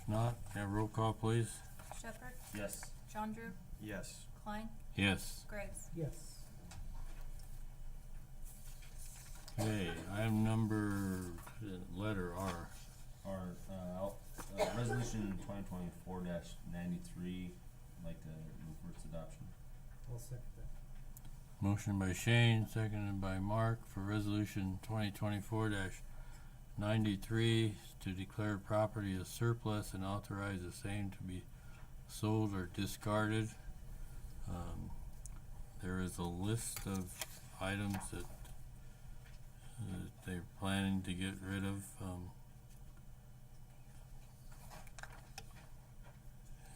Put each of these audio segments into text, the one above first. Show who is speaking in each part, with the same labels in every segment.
Speaker 1: If not, have roll call, please.
Speaker 2: Shepherd,
Speaker 3: Yes.
Speaker 2: John Drew,
Speaker 3: Yes.
Speaker 2: Klein,
Speaker 1: Yes.
Speaker 2: Graves.
Speaker 4: Yes.
Speaker 1: Okay, item number, uh, letter R.
Speaker 3: Our, uh, out- uh, resolution twenty twenty-four dash ninety-three, I'd like to move for its adoption.
Speaker 4: I'll second that.
Speaker 1: Motion by Shane, seconded by Mark for resolution twenty twenty-four ninety-three to declare property as surplus and authorize the same to be sold or discarded. Um, there is a list of items that, that they're planning to get rid of, um.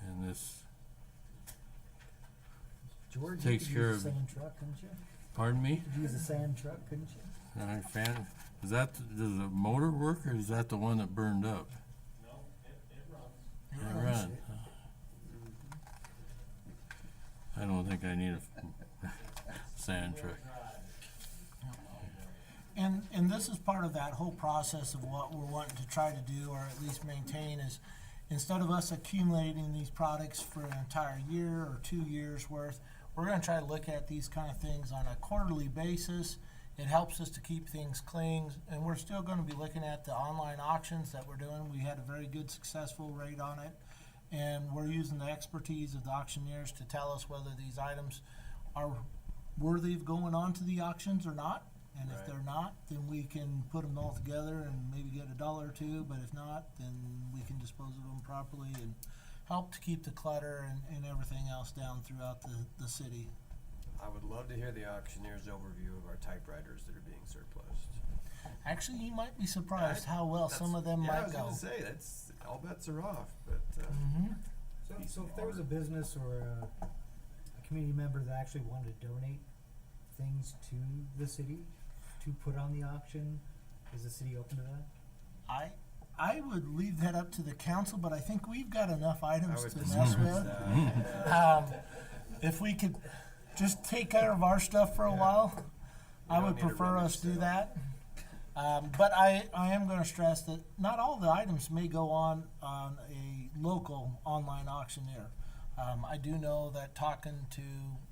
Speaker 1: And this,
Speaker 4: George, you
Speaker 1: Takes
Speaker 4: could
Speaker 1: care
Speaker 4: use
Speaker 1: of-
Speaker 4: a sand truck, couldn't you?
Speaker 1: pardon me?
Speaker 4: You could use a sand truck, couldn't you?
Speaker 1: I fan, is that, does the motor work or is that the one that burned up?
Speaker 3: No, it, it runs.
Speaker 1: It
Speaker 4: Oh,
Speaker 1: run.
Speaker 4: shit.
Speaker 1: I don't think I need a sand truck.
Speaker 5: And, and this is part of that whole process of what we're wanting to try to do, or at least maintain, is instead of us accumulating these products for an entire year or two years' worth, we're gonna try to look at these kind of things on a quarterly basis. It helps us to keep things clean, and we're still gonna be looking at the online auctions that we're doing. We had a very good successful rate on it. And we're using the expertise of the auctioneers to tell us whether these items are worthy of going on to the auctions or not. And if
Speaker 3: Right.
Speaker 5: they're not, then we can put them all together and maybe get a dollar or two, but if not, then we can dispose of them properly and help to keep the clutter and, and everything else down throughout the, the city.
Speaker 6: I would love to hear the auctioneer's overview of our typewriters that are being surplused.
Speaker 5: Actually, you might be surprised how well some of them
Speaker 6: yeah, I
Speaker 5: might
Speaker 6: was
Speaker 5: go.
Speaker 6: gonna say that's all bets are off, but uh,
Speaker 5: Mhm.
Speaker 4: So,
Speaker 3: Piece
Speaker 4: so
Speaker 3: of
Speaker 4: if there was a
Speaker 3: art.
Speaker 4: business or a, a community member that actually wanted to donate things to the city to put on the auction, is the city open to that?
Speaker 5: I, I would leave that up to the council, but I think we've got enough
Speaker 6: I
Speaker 5: items
Speaker 6: would uh,
Speaker 5: to mess with. Um, if we could just take care of our stuff for a while, I
Speaker 6: We don't
Speaker 5: would
Speaker 6: need a
Speaker 5: prefer
Speaker 6: rummage
Speaker 5: us do
Speaker 6: sale.
Speaker 5: that. Um, but I, I am gonna stress that not all the items may go on, on a local online auctioneer. Um, I do know that talking to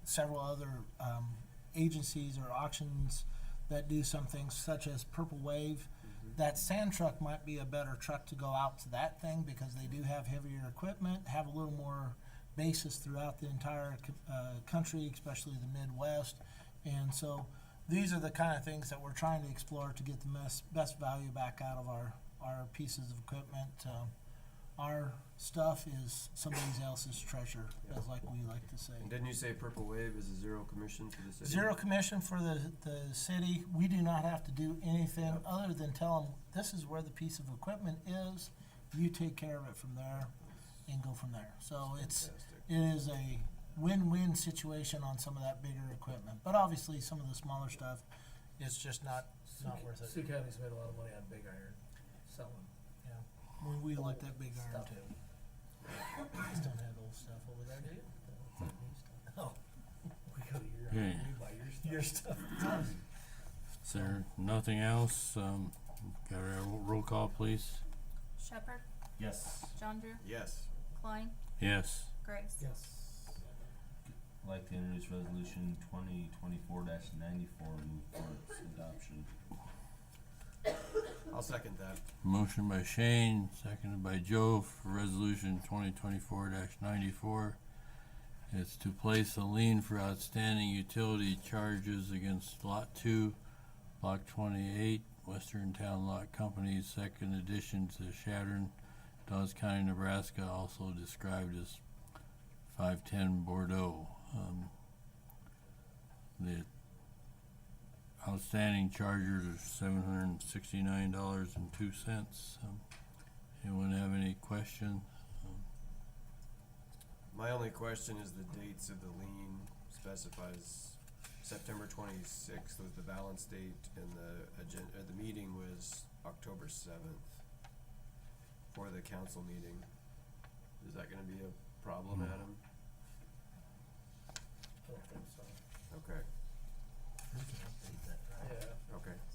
Speaker 5: several other, um, agencies or auctions that do some things such as Purple Wave,
Speaker 6: Mm-hmm.
Speaker 5: that sand truck might be a better truck to go out to that thing because they do have heavier equipment, have a little more basis throughout the entire co- uh, country, especially the Midwest. And so these are the kind of things that we're trying to explore to get the mes- best value back out of our, our pieces of equipment. Um, our stuff is somebody else's treasure, as like we like to say.
Speaker 6: and didn't you say Purple Wave is a zero commission for the city?
Speaker 5: Zero commission for the, the city, we do not have to do anything other than tell them, this is where the piece of equipment is, you take care of it from there and go from there. So it's,
Speaker 6: Fantastic.
Speaker 5: it is a win-win situation on some of that bigger equipment, but obviously some of the smaller stuff is just not, not worth it.
Speaker 7: Sioux County's made a lot of money on big iron selling.
Speaker 5: When we looked at big iron too. Just don't have old stuff over there, do you? Oh,
Speaker 7: We go to your,
Speaker 1: Okay,
Speaker 7: we buy your stuff.
Speaker 5: your stuff.
Speaker 1: is there nothing else? Um, got a ro- roll call, please?
Speaker 2: Shepherd,
Speaker 3: Yes.
Speaker 2: John Drew,
Speaker 6: Yes.
Speaker 2: Klein,
Speaker 1: Yes.
Speaker 2: Graves.
Speaker 4: Yes.
Speaker 3: I'd like to introduce resolution twenty twenty-four dash ninety-four, move for its adoption.
Speaker 6: I'll second that.
Speaker 1: Motion by Shane, seconded by Joe for resolution twenty twenty-four ninety-four. It's to place a lien for outstanding utility charges against Lot Two, Block twenty-eight, Western Town Lot Company, second addition to Shattern, Dawes County, Nebraska, also described as five-ten Bordeaux. Um, The Outstanding charges are seven hundred and sixty-nine dollars and two cents. Anyone have any question?
Speaker 6: My only question is the dates of the lien specifies September twenty-sixth was the balance date and the agenda, uh, the meeting was October seventh for the council meeting. Is that gonna be a problem,
Speaker 1: No.
Speaker 6: Adam?
Speaker 7: I don't think so.
Speaker 6: Okay,
Speaker 7: Yeah.
Speaker 6: okay.